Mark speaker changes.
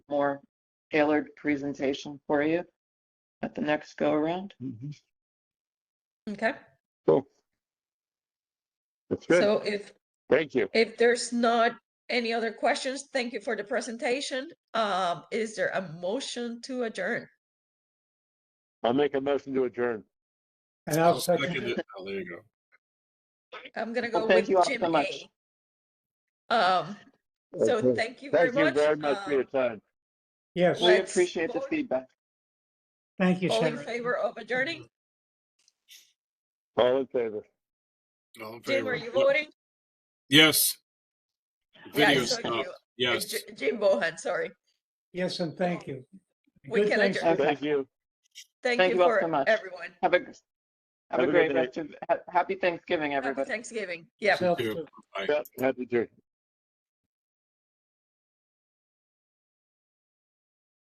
Speaker 1: more tailored presentation for you at the next go around.
Speaker 2: Mhm.
Speaker 3: Okay,
Speaker 2: Cool. That's good.
Speaker 3: so if,
Speaker 2: Thank you.
Speaker 3: if there's not any other questions, thank you for the presentation. Um, is there a motion to adjourn?
Speaker 2: I'll make a motion to adjourn.
Speaker 4: And
Speaker 5: I'll
Speaker 4: I'll second
Speaker 5: second it. Oh, there you go.
Speaker 3: I'm gonna
Speaker 1: Well,
Speaker 3: go
Speaker 1: thank
Speaker 3: with
Speaker 1: you all
Speaker 3: Jim
Speaker 1: so much.
Speaker 3: A. Um, so
Speaker 2: Okay.
Speaker 3: thank you very
Speaker 2: Thank you
Speaker 3: much.
Speaker 2: very much for your
Speaker 3: Um,
Speaker 2: time.
Speaker 4: Yes,
Speaker 1: We
Speaker 3: Let's
Speaker 1: appreciate the
Speaker 3: vote.
Speaker 1: feedback.
Speaker 4: thank you,
Speaker 3: All in
Speaker 4: Sarah.
Speaker 3: favor of adjourning?
Speaker 2: All in favor?
Speaker 5: All
Speaker 3: Jim,
Speaker 5: in favor?
Speaker 3: are you voting?
Speaker 5: Yes.
Speaker 3: Yeah, I
Speaker 5: Video
Speaker 3: saw
Speaker 5: stuff.
Speaker 3: you.
Speaker 5: Yes.
Speaker 3: It's J- Jim Bohan, sorry.
Speaker 4: Yes, and thank you.
Speaker 3: We
Speaker 4: Good
Speaker 3: can
Speaker 4: thanks-
Speaker 3: adjourn.
Speaker 2: Thank you.
Speaker 3: Thank
Speaker 1: Thank
Speaker 3: you
Speaker 1: you all so
Speaker 3: for
Speaker 1: much.
Speaker 3: everyone.
Speaker 1: Have a, have a
Speaker 2: good
Speaker 1: great
Speaker 2: night.
Speaker 1: rest of, ha- happy Thanksgiving,
Speaker 3: Happy
Speaker 1: everybody.
Speaker 3: Thanksgiving. Yeah.
Speaker 4: yourself
Speaker 5: Thank you.
Speaker 4: too.
Speaker 2: Yep, Happy to.